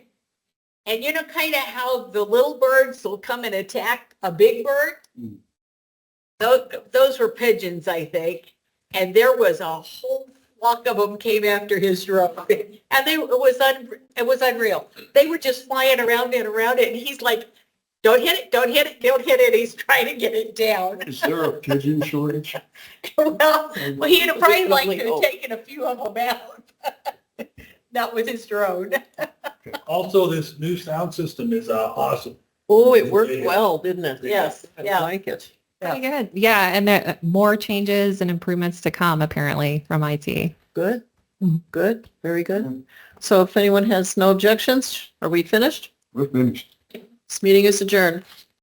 And you know kind of how the little birds will come and attack a big bird? Mm. Those, those were pigeons, I think. And there was a whole flock of them came after his drone. And they, it was, un, it was unreal. They were just flying around and around it. And he's like, don't hit it, don't hit it, don't hit it. He's trying to get it down. Is there a pigeon shortage? well, well, he'd have probably liked to Definitely. have taken a few of them out. Not with his drone. Also, this new sound system is uh, awesome. Oh, it worked Yeah. well, didn't it? Yes, I yeah. like it. Yeah. Pretty good. Yeah, and there more changes and improvements to come apparently from IT. Good, Mhm. good, very good. Mm. So if anyone has no objections, are we finished? We're finished. This meeting is adjourned.